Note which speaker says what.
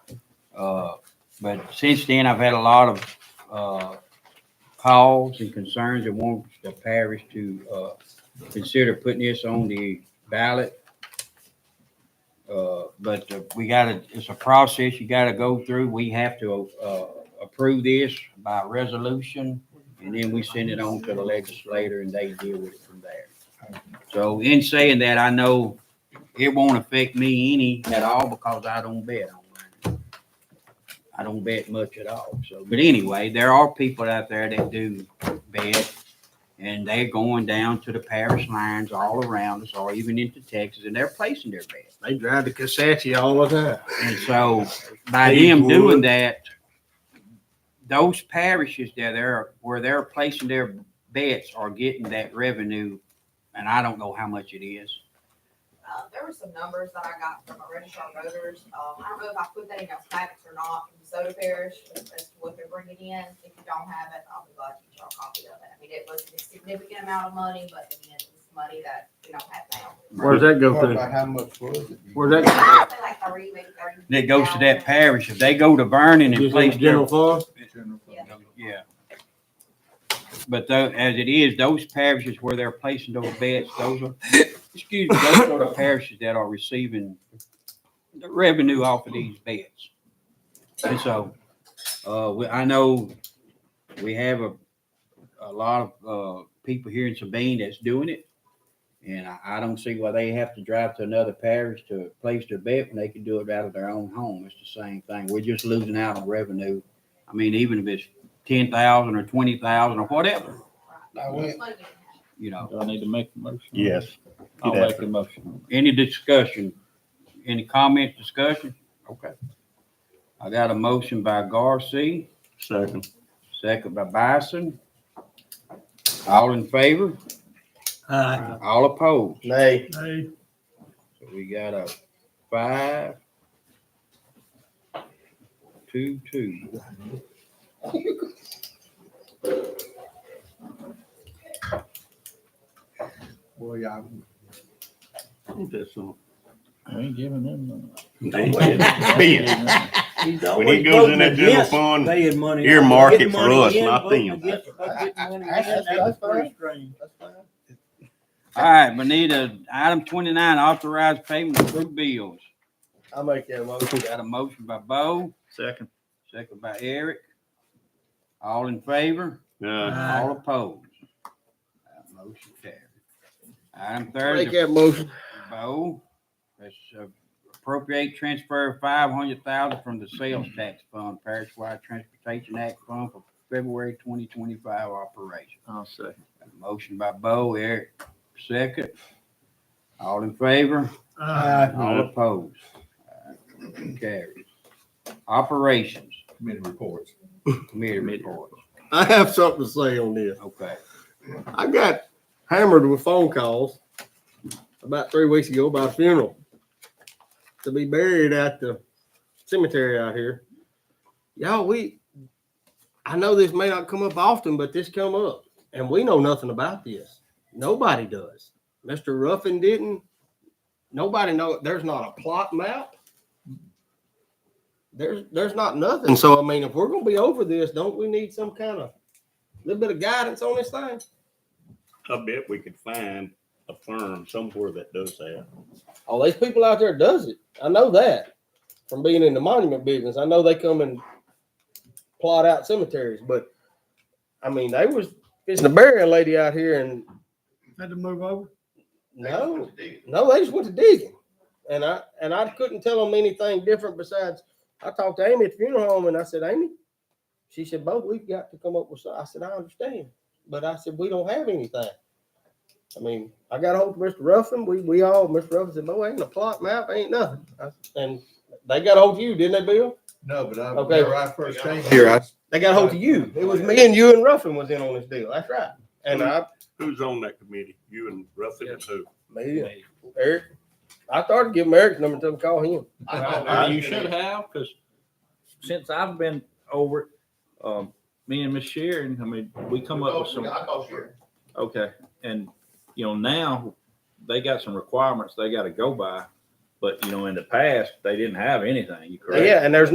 Speaker 1: Uh, But since then, I've had a lot of uh, calls and concerns and want the parish to uh, consider putting this on the ballot. Uh, But uh, we gotta, it's a process you gotta go through. We have to uh, approve this by resolution. And then we send it on to the legislator and they deal with it from there. So in saying that, I know it won't affect me any at all because I don't bet online. I don't bet much at all. So, but anyway, there are people out there that do bet and they're going down to the parish lines all around us or even into Texas and they're placing their bet.
Speaker 2: They drive to Kasachi all the
Speaker 1: And so by
Speaker 2: These
Speaker 1: them doing
Speaker 2: would-
Speaker 1: that, those parishes that are, where they're placing their bets are getting that revenue. And I don't know how much it is.
Speaker 3: Uh, there were some numbers that I got from my registrar of voters. Um, I don't know if I put that in your packets or not from Soda Parish as to what they're bringing in. If you don't have it, I'll be glad to get y'all a copy of it. I mean, it was a significant amount of money, but again, it's money that we don't have now.
Speaker 2: time. Where's that go
Speaker 4: About
Speaker 2: through?
Speaker 4: How much was it?
Speaker 2: Where's that?
Speaker 3: I feel like thirty, maybe thirty.
Speaker 1: that goes to that parish, if they go to Vernon and
Speaker 2: Just in the
Speaker 1: place their,
Speaker 2: general fund?
Speaker 1: yeah. But though, as it is, those parishes where they're placing those bets, those are, excuse me, those are the parishes that are receiving the revenue off of these bets. And so, uh, we, I know we have a, a lot of, uh, people here in Sabine that's doing it. And I, I don't see why they have to drive to another parish to place their bet when they can do it out of their own home. It's the same thing. We're just losing out on revenue. I mean, even if it's ten thousand or twenty thousand or whatever,
Speaker 4: I went,
Speaker 3: Money.
Speaker 1: you know,
Speaker 5: Do I need to make a motion?
Speaker 6: Yes.
Speaker 5: I'll
Speaker 6: You'd have
Speaker 5: make a motion.
Speaker 1: any discussion, any comments, discussion? Okay. I got a motion by Garcia,
Speaker 6: Second.
Speaker 1: second by Bison. All in favor?
Speaker 2: Aye.
Speaker 1: All opposed?
Speaker 4: nay,
Speaker 1: So we got a five, two, two.
Speaker 4: boy, I,
Speaker 5: We ain't giving them.
Speaker 6: When he goes in that general fund,
Speaker 2: They had money.
Speaker 6: earmark it for us, not them.
Speaker 4: that's fine, that's fine.
Speaker 1: All right, we need a item twenty-nine, authorized payment of approved bills.
Speaker 4: I'll make that motion.
Speaker 1: Got a motion by Bo,
Speaker 5: Second.
Speaker 1: second by Eric. All in favor?
Speaker 6: Yeah.
Speaker 1: All opposed? That motion carried. Item thirty.
Speaker 4: Make that motion.
Speaker 1: Bo, that's uh, appropriate transfer five hundred thousand from the sales tax fund, Parish-wide Transportation Act Fund for February twenty twenty-five operation.
Speaker 5: I'll second.
Speaker 1: Got a Motion by Bo, Eric, second. All in favor? All
Speaker 6: Aye.
Speaker 1: opposed? Carries. Operations
Speaker 4: Committee reports.
Speaker 1: Committee report,
Speaker 4: I have something to say on this.
Speaker 1: okay.
Speaker 4: I got hammered with phone calls about three weeks ago about a funeral to be buried at the cemetery out here. Y'all, we, I know this may not come up often, but this come up, and we know nothing about this. Nobody does. Mr. Ruffin didn't. Nobody know. There's not a plot map. There's there's not nothing. So I mean, if we're gonna be over this, don't we need some kind of little bit of guidance on this thing?
Speaker 6: I bet we could find a firm somewhere that does that.
Speaker 4: all these people out there does it. I know that from being in the monument business. I know they come and plot out cemeteries, but I mean, they was it's a burying lady out here, and
Speaker 2: Had to move over?
Speaker 4: no, no, they just went to digging, and I and I couldn't tell them anything different besides I talked to Amy at the funeral home, and I said, Amy, she said, "Bo, we've got to come up with." Something. I said, "I understand," but I said, "We don't have anything." I mean, I got a hold of Mr. Ruffin. We we all Mr. Ruffin said, "Bo, ain't a plot map, ain't nothing." I, and they got a hold of you, didn't they, Bill?
Speaker 7: No, but I,
Speaker 4: Okay.
Speaker 7: whenever I first came here, I,
Speaker 4: They got a hold of you. It was me and you and Ruffin was in on this deal. That's right. And I,
Speaker 6: Who's on that committee? You and Ruffin and who?
Speaker 4: me and Eric, I started giving Eric's number to call him.
Speaker 5: Uh, You should have, because since I've been over, it, um, me and Miss Sharon, I mean, we come up with some,
Speaker 7: I called here.
Speaker 5: okay, and, you know, now they got some requirements they gotta go by, but, you know, in the past, they didn't have anything, you correct?
Speaker 4: Yeah, and there's